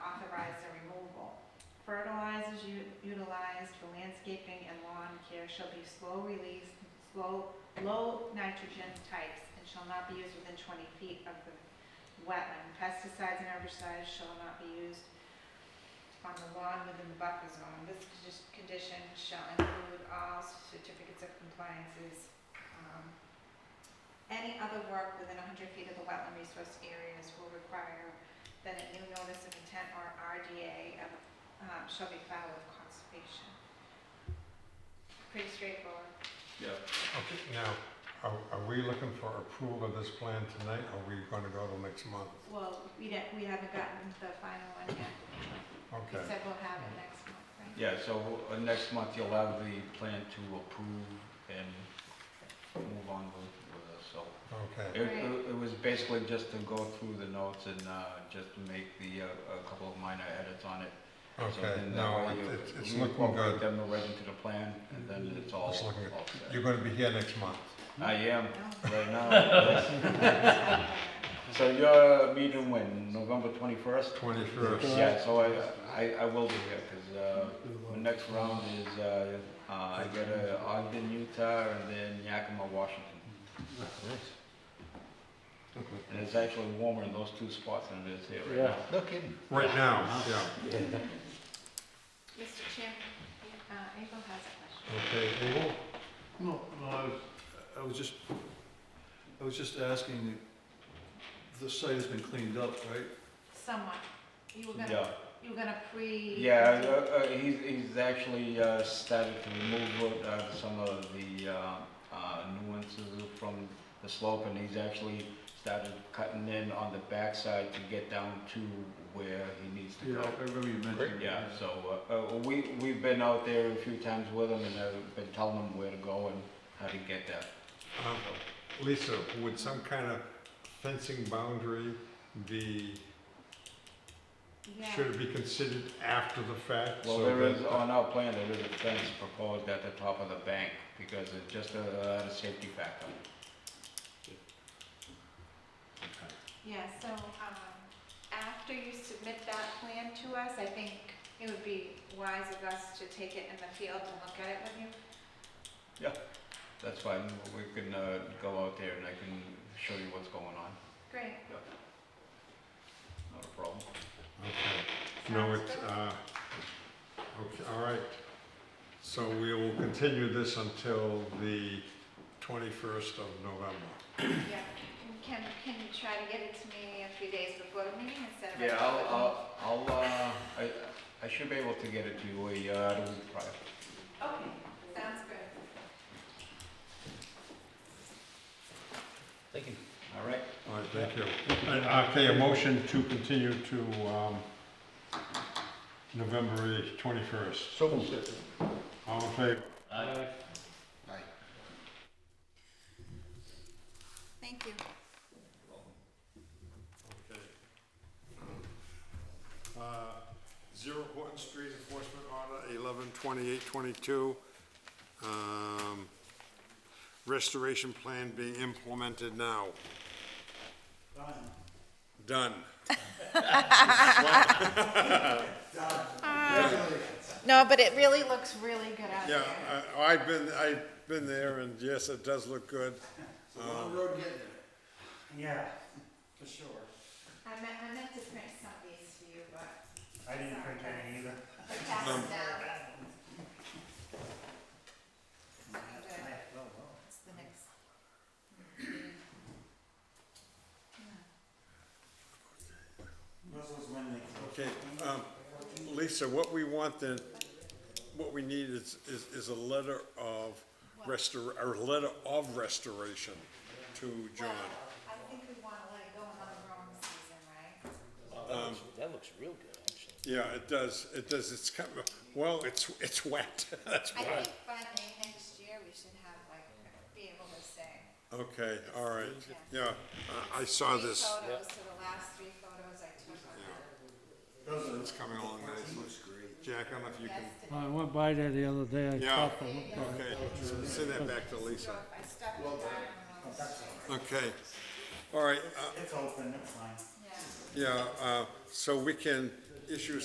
refrigerator shall be slow release, slow, low nitrogen types and shall not be used within twenty feet of the wetland. Pesticides and herbicides shall not be used on the lawn within the buffer zone. This condi- condition shall include all certificates of compliances, um, any other work within hundred feet of the wetland resource areas will require that a new notice of intent or RDA of, um, shall be filed with conservation. Pretty straightforward. Yeah, Okay, now, are, are we looking for approval of this plan tonight, or are we gonna go till next month? Well, we didn't, we haven't gotten the final one yet. We Okay, said we'll have it next month, right? yeah, so uh, next month you'll have the plan to approve and move on with, with us, so. okay, It, it- it was basically just to go through the notes and, uh, just to make the, uh, a couple of minor edits on it. So okay, then that no, way it- you- it's, it's you looking incorporate good. Them right into the plan, and then it's all, all It's looking good. You're set. gonna be here next month. I am, No. right now. yes. So your meeting when, November twenty-first? Twenty-first. Yeah, so I, I, I will be here, cause, uh, the next round is, uh, uh, I got uh, Ogden, Utah, and then Yakima, Washington. And it's actually warmer in those two spots than it is here right now. No kidding. Right now, yeah. Mr. Chairman, uh, April has a question. Okay, Abel? No, no, I was, I was just, I was just asking, the site has been cleaned up, right? Somewhat. You were Yeah, gonna, you were gonna pre. yeah, uh, uh, he's, he's actually, uh, started to remove, uh, some of the, uh, uh, nuances from the slope, and he's actually started cutting in on the backside to get down to where he needs to Yeah, go. I remember you mentioned. it. Yeah, so, uh, uh, we, we've been out there a few times with them and I've been telling them where to go and how to get there. Um, Lisa, would some kind of fencing boundary be, Yeah. should it be considered after the fact? Well, so there that- is, on our plan, there is a fence proposed at the top of the bank because it's just uh, a, a safety factor. Yeah, so, um, after you submit that plan to us, I think it would be wise of us to take it in the field and look at it with you. That's fine, we can, uh, go out there and I can show you what's going on, Great. not a problem. Okay. No, Sounds it's, good. uh, okay, all right. So we will continue this until the twenty-first of November. Yeah, And can, can you try to get it to me a few days before the meeting instead of? Yeah, I'll, I'll, I'll, uh, I, I should be able to get it to you a, uh, the week prior. Okay, sounds good. Thank you. All right, All right, thank you. And, uh, Okay, a motion to continue to, um, November eighth, twenty-first. So All in favor? Thank you. Uh, Zero Horton Street Enforcement Order, eleven twenty-eight twenty-two. Um, Restoration plan being implemented now. Done. No, but it really looks really good out Yeah, there. I, I've been, I've been there, and yes, it does look good. Long road getting there. Yeah, for sure. I meant, I meant to print some of these for you, but I didn't print any either. I passed them down. Okay. It's the next. Russell's when they close. Okay, um, Lisa, what we want then, what we need is, is, is a letter of restor, or a letter of restoration to John. Well, I think we wanna let it go another growing season, right? That looks real good, actually. Yeah, it does, it does, it's kind of, well, it's, it's wet, that's I why. think by May next year, we should have like, be able to say. Okay, all right, yeah, I- I Three saw Oh, this, photos to the last three photos I took of her it's coming along nicely. Jack, I don't know if you can, Well, I went by there the other day, I yeah, stopped and looked at it. okay, send that back to Lisa. If I stuck it down on those, Okay, all right, uh, It's open, it's fine. yeah. yeah, uh, so we can issue